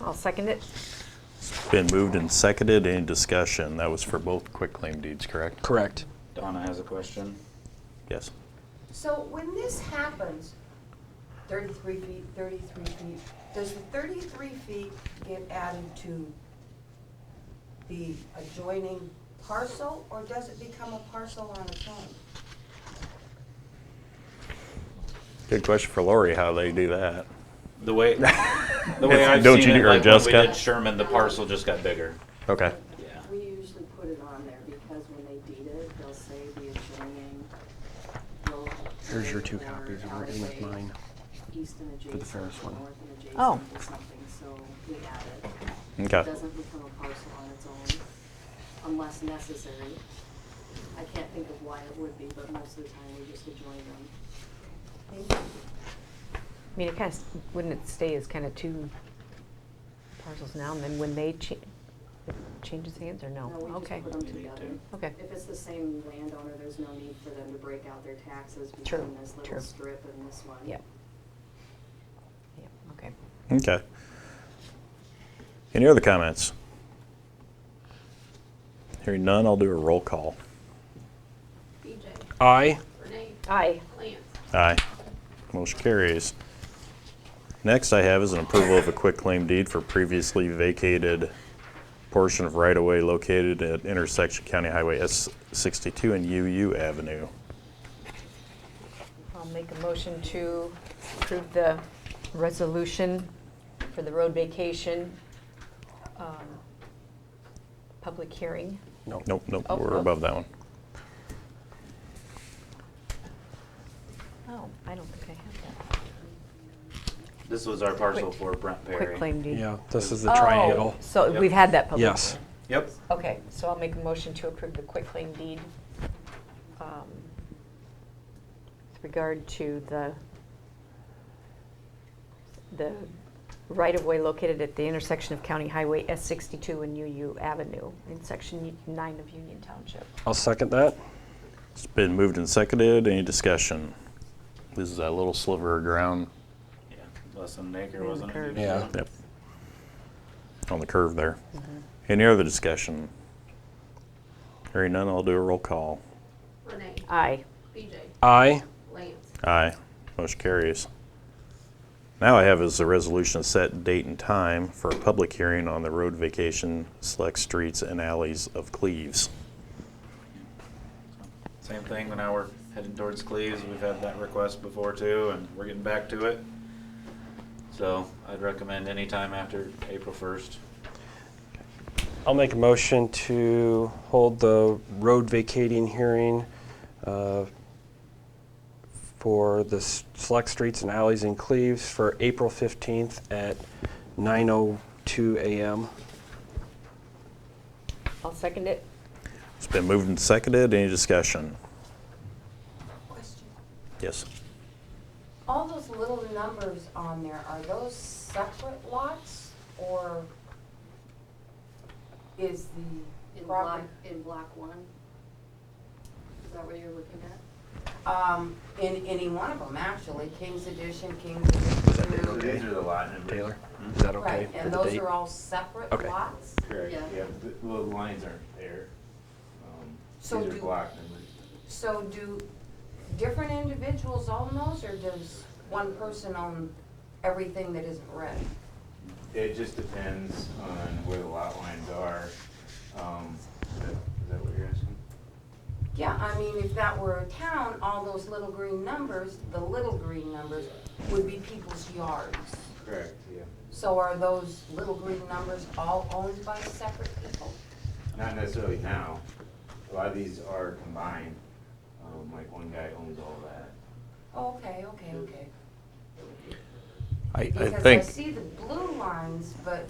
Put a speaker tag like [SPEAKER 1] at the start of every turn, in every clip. [SPEAKER 1] I'll second it.
[SPEAKER 2] Been moved and seconded. Any discussion? That was for both quitclaim deeds, correct?
[SPEAKER 3] Correct.
[SPEAKER 4] Donna has a question.
[SPEAKER 2] Yes.
[SPEAKER 5] So when this happens, thirty-three feet, thirty-three feet, does the thirty-three feet get added to the adjoining parcel, or does it become a parcel on its own?
[SPEAKER 2] Good question for Lori, how they do that.
[SPEAKER 4] The way, the way I've
[SPEAKER 2] Don't
[SPEAKER 4] seen
[SPEAKER 2] you
[SPEAKER 4] it,
[SPEAKER 2] do- or
[SPEAKER 4] like when we
[SPEAKER 2] Jessica?
[SPEAKER 4] did Sherman, the parcel just got bigger.
[SPEAKER 2] Okay.
[SPEAKER 4] Yeah.
[SPEAKER 6] We usually put it on there because when they deed it, they'll say the adjoining. will-
[SPEAKER 3] Here's your two
[SPEAKER 6] or
[SPEAKER 3] copies. I'm
[SPEAKER 6] outer
[SPEAKER 3] working
[SPEAKER 6] way,
[SPEAKER 3] with mine.
[SPEAKER 6] East and adjacent.
[SPEAKER 3] Ferris
[SPEAKER 6] or
[SPEAKER 3] one.
[SPEAKER 6] North and adjacent
[SPEAKER 1] Oh.
[SPEAKER 6] or something, so we add it. It
[SPEAKER 2] Okay.
[SPEAKER 6] doesn't become a parcel on its own unless necessary. I can't think of why it would be, but most of the time we just adjoin them.
[SPEAKER 1] I mean, it kind of, wouldn't it stay as kind of two parcels now, and then when they cha- it changes hands, or no?
[SPEAKER 6] No, we
[SPEAKER 1] Okay,
[SPEAKER 6] just put them
[SPEAKER 4] You need
[SPEAKER 6] together.
[SPEAKER 4] to.
[SPEAKER 1] okay,
[SPEAKER 6] If it's the same landowner, there's no need for them to break out their taxes
[SPEAKER 1] True,
[SPEAKER 6] between this
[SPEAKER 1] true.
[SPEAKER 6] little strip and this one.
[SPEAKER 1] yep. Yep, okay.
[SPEAKER 2] Okay. Any other comments? Hearing none, I'll do a roll call.
[SPEAKER 7] BJ,
[SPEAKER 3] I.
[SPEAKER 7] Renee,
[SPEAKER 1] Aye.
[SPEAKER 7] Lance.
[SPEAKER 2] Aye. Motion carries. Next I have is an approval of a quitclaim deed for previously vacated portion of right-of-way located at intersection County Highway S62 and UU Avenue.
[SPEAKER 1] I'll make a motion to approve the resolution for the road vacation, um, public hearing.
[SPEAKER 3] No.
[SPEAKER 2] Nope, nope,
[SPEAKER 1] Oh,
[SPEAKER 2] we're
[SPEAKER 1] oh.
[SPEAKER 2] above that one.
[SPEAKER 1] Oh, I don't think I have
[SPEAKER 4] This was our parcel
[SPEAKER 1] Quick-
[SPEAKER 4] for Brent
[SPEAKER 1] that.
[SPEAKER 4] Perry.
[SPEAKER 1] Quick claim deed.
[SPEAKER 3] Yeah, this is the
[SPEAKER 1] Oh,
[SPEAKER 3] triangle.
[SPEAKER 1] So
[SPEAKER 4] Yep.
[SPEAKER 1] we've had that public.
[SPEAKER 3] Yes.
[SPEAKER 4] Yep.
[SPEAKER 1] Okay, so I'll make a motion to approve the quick claim deed um, with regard to the, the right-of-way located at the intersection of County Highway S62 and UU Avenue in Section 9 of Union Township.
[SPEAKER 3] I'll second that.
[SPEAKER 2] It's been moved and seconded. Any discussion? This is that little sliver of ground.
[SPEAKER 4] Yeah. Less than an acre,
[SPEAKER 1] And
[SPEAKER 4] wasn't it?
[SPEAKER 1] curved.
[SPEAKER 3] Yeah.
[SPEAKER 2] Yep. On the curve there. Any other discussion? Hearing none, I'll do a roll call.
[SPEAKER 7] Renee,
[SPEAKER 1] Aye.
[SPEAKER 7] BJ,
[SPEAKER 3] I.
[SPEAKER 7] Lance.
[SPEAKER 2] Aye. Motion carries. Now I have is a resolution to set date and time for a public hearing on the road vacation select streets and alleys of Cleves.
[SPEAKER 4] Same thing, when now we're heading towards Cleves, we've had that request before too, and we're getting back to it. So I'd recommend any time after April first.
[SPEAKER 3] I'll make a motion to hold the road vacating hearing uh, for the s- select streets and alleys in Cleves for April 15th at 9:02 a.m.
[SPEAKER 1] I'll second it.
[SPEAKER 2] It's been moved and seconded. Any discussion?
[SPEAKER 5] Question.
[SPEAKER 2] Yes.
[SPEAKER 5] All those little numbers on there, are those separate lots, or is the
[SPEAKER 6] In block,
[SPEAKER 5] property?
[SPEAKER 6] in block one? Is that what you're looking at?
[SPEAKER 5] Um, in any one of them, actually, King's Edition, King's Edition Two.
[SPEAKER 8] the lot
[SPEAKER 3] Taylor, is that okay?
[SPEAKER 5] Right,
[SPEAKER 3] for
[SPEAKER 5] and
[SPEAKER 3] the
[SPEAKER 5] those
[SPEAKER 3] date?
[SPEAKER 5] are all separate
[SPEAKER 3] Okay.
[SPEAKER 5] lots?
[SPEAKER 8] Correct,
[SPEAKER 6] Yeah.
[SPEAKER 8] yeah, the, well, the lines aren't there. Um,
[SPEAKER 5] So
[SPEAKER 8] These
[SPEAKER 5] do-
[SPEAKER 8] are block numbers.
[SPEAKER 5] So do different individuals own those, or does one person own everything that isn't red?
[SPEAKER 8] It just depends on where the lot lines are. Um, is that, is that what you're asking?
[SPEAKER 5] Yeah, I mean, if that were a town, all those little green numbers, the little green numbers, would be people's yards.
[SPEAKER 8] Correct, yeah.
[SPEAKER 5] So are those little green numbers all owned by separate people?
[SPEAKER 8] Not necessarily now. A lot of these are combined. Um, like one guy owns all that.
[SPEAKER 5] Okay, okay, okay.
[SPEAKER 2] I, I
[SPEAKER 5] Because I
[SPEAKER 2] think.
[SPEAKER 5] see the blue lines, but,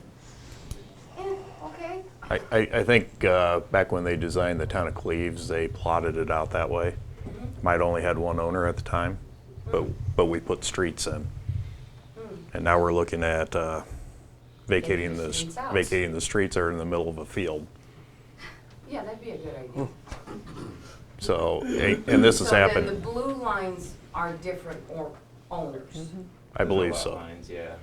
[SPEAKER 5] eh, okay.
[SPEAKER 2] I, I, I think uh, back when they designed the town of Cleves, they plotted it out that way. Might only had one owner at the time, but, but we put streets in. And now we're looking at uh, vacating the,
[SPEAKER 5] Vacating the
[SPEAKER 2] vacating the streets that are in the middle of a field.
[SPEAKER 5] Yeah, that'd be a good idea.
[SPEAKER 2] So, and and Hmm. this has
[SPEAKER 5] So then
[SPEAKER 2] happened,
[SPEAKER 5] the blue lines are different or owners.
[SPEAKER 2] I believe
[SPEAKER 8] Lot
[SPEAKER 2] so.
[SPEAKER 8] Lines, yeah.